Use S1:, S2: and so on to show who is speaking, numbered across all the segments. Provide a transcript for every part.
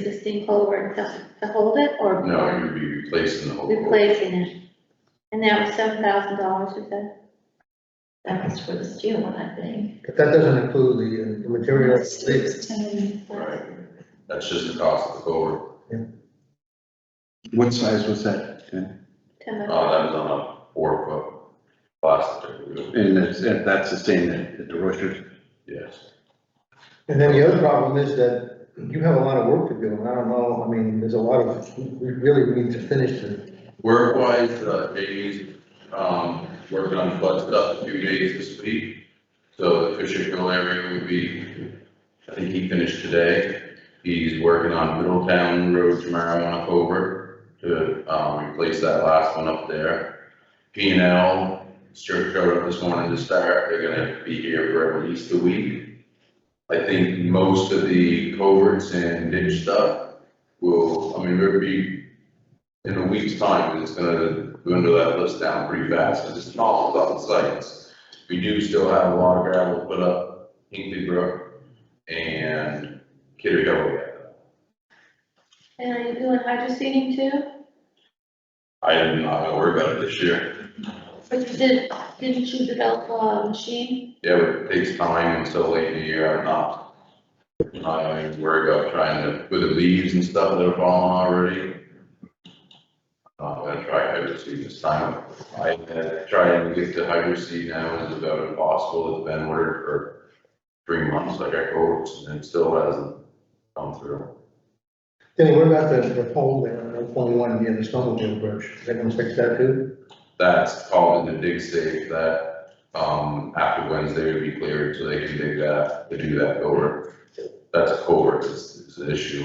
S1: existing culvert to, to hold it or
S2: No, you'd be replacing the whole.
S1: replacing it? And that was seven thousand dollars, you said?
S3: That was for the steel one, I think.
S4: But that doesn't include the, uh, the material. It's
S2: Right, that's just the cost of the culvert.
S5: What size was that? Ken?
S1: Ten
S2: Uh,
S1: bucks.
S2: that was on a four foot plastic wheel,
S5: And that's, and that's the same at at the Rochers?
S2: yes.
S4: And then the other problem is that you have a lot of work to do, and I don't know, I mean, there's a lot of, we really need to finish it.
S2: Work-wise, uh, Jamie's, um, working on flood stuff a few days this week. So the Fisher Hill area would be, I think he finished today. He's working on Middletown Road tomorrow on a culvert to, um, replace that last one up there. P and L, Stuart showed up this morning to start, they're gonna be here for at least a week. I think most of the culverts and ditch stuff will, I mean, there'll be in a week's time, it's gonna dwindle that list down pretty fast, because it's not all about the sites. We do still have a lot of gravel put up, Hinkley Brook and Kidder Hill.
S1: And are you doing hydro seeding too?
S2: I am not gonna worry about it this year,
S1: But you did, didn't you develop
S3: uh,
S1: a machine?
S2: yeah, but it takes time until late in the year, I'm not. I'm not gonna even worry about trying to, with the leaves and stuff that are falling already. I'm not gonna try hydro seed this time, I had tried to get to hydro seed now, it's about impossible, it's been ordered for three months, I got quotes, and it still hasn't come through.
S4: Kenny, what about the, the pole there, on twenty-one, near the snowmobile bridge, they're gonna fix that too?
S2: That's called into dig safe, that, um, after Wednesday would be cleared, so they can dig that, to do that over. That's a culvert, is, is the issue.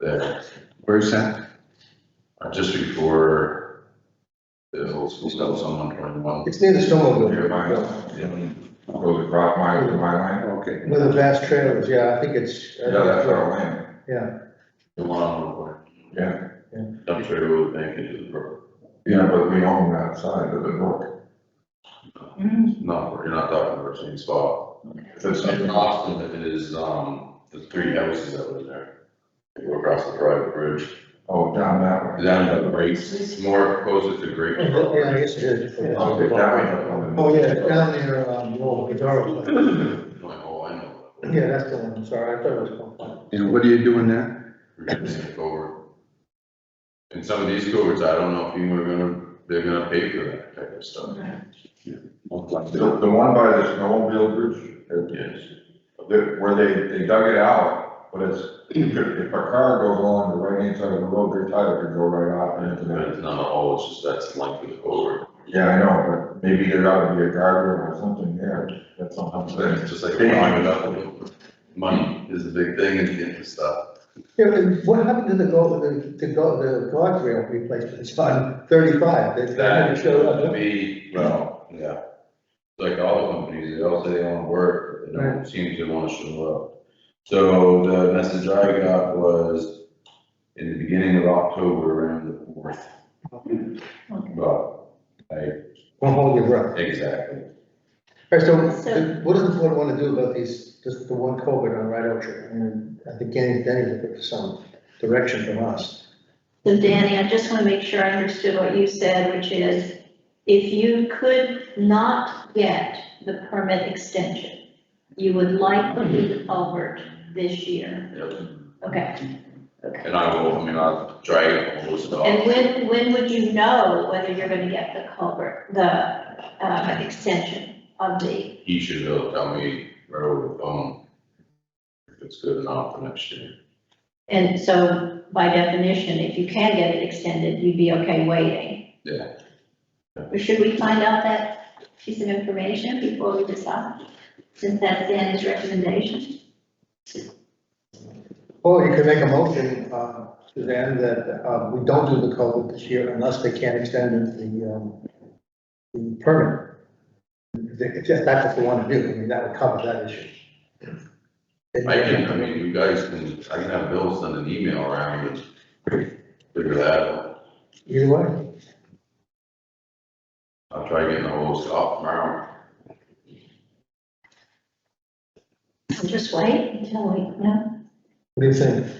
S2: There,
S5: Where's that?
S2: uh, just before the old school stuff, someone twenty-one,
S4: It's near the snowmobile.
S6: Near my,
S4: bridge,
S6: goes across my, my land.
S5: Okay.
S4: Where the vast trailers, yeah, I think it's. uh,
S6: Yeah, that's our land.
S4: Yeah,
S2: the one on the.
S6: Yeah.
S4: Yeah.
S2: Dump trailer would make it to the brook,
S6: Yeah, but we own that side of the brook.
S2: no, you're not talking about the same spot. It's
S6: It's-
S2: in Austin, it is, um, the three houses that were there. They were across the private bridge.
S6: Oh, down that way.
S2: Down at Grace, more closer to Grace.
S4: yeah, I guess it is. yeah.
S6: Okay, that way.
S4: Oh, yeah, down there, um, oh, Pizarro place.
S2: Like, oh, I know.
S4: yeah, that's the one, I'm sorry, I thought it was. Concord.
S5: And what are you doing there?
S2: We're gonna take over. And some of these courts, I don't know if you were gonna, they're gonna pay for that type of stuff.
S5: Most likely.
S6: The, the one by the snowmobile bridge, it-
S2: Yes.
S6: that, where they, they dug it out, but it's, if a car goes along the right hand side of the road, their tire could go right off and into
S2: But
S6: that.
S2: it's not all, it's just that's likely to over.
S6: Yeah, I know, but maybe there ought to be a guardrail or something there, that's all I'm saying.
S2: It's just like climbing it up. Money is the big thing in getting this stuff.
S4: Yeah, and what happened to the go, the, the go, the guardrail replacement, it's on thirty-five, they, they never
S2: That
S4: showed
S2: shows to
S4: up.
S2: be, well, yeah. Like all the companies, they all say they wanna work, but they don't seem to wanna show up. So the message I got was in the beginning of October, around the fourth. But, I,
S4: Don't hold your breath.
S2: exactly.
S4: All right, so
S1: So-
S4: what does the board want to do about these, just the one COVID on Red Orchard? And I think Danny, Danny looking for some direction from us.
S3: So Danny, I just want to make sure I understood what you said, which is if you could not get the permit extension, you would like to move over this year.
S2: Yep.
S3: Okay.
S2: And I will, I mean, I'll try it, I'll listen
S3: And
S2: off.
S3: when, when would you know whether you're going to get the culvert, the um, extension of the,
S2: He should be able to tell me right over the phone if it's good enough for next year.
S3: and so by definition, if you can get it extended, you'd be okay waiting.
S2: Yeah.
S3: Should we find out that piece of information before we decide, since that's Danny's recommendation?
S4: Or you can make a motion, uh, Suzanne, that, uh, we don't do the COVID this year unless they can't extend the, um, the permit. If if that's what they want to do, I mean, that would cover that issue.
S2: I can, I mean, you guys can, I can have Bill send an email around and figure that out.
S4: Either way,
S2: I'll try getting the whole stuff tomorrow.
S3: Just wait until we know.
S4: what do you think?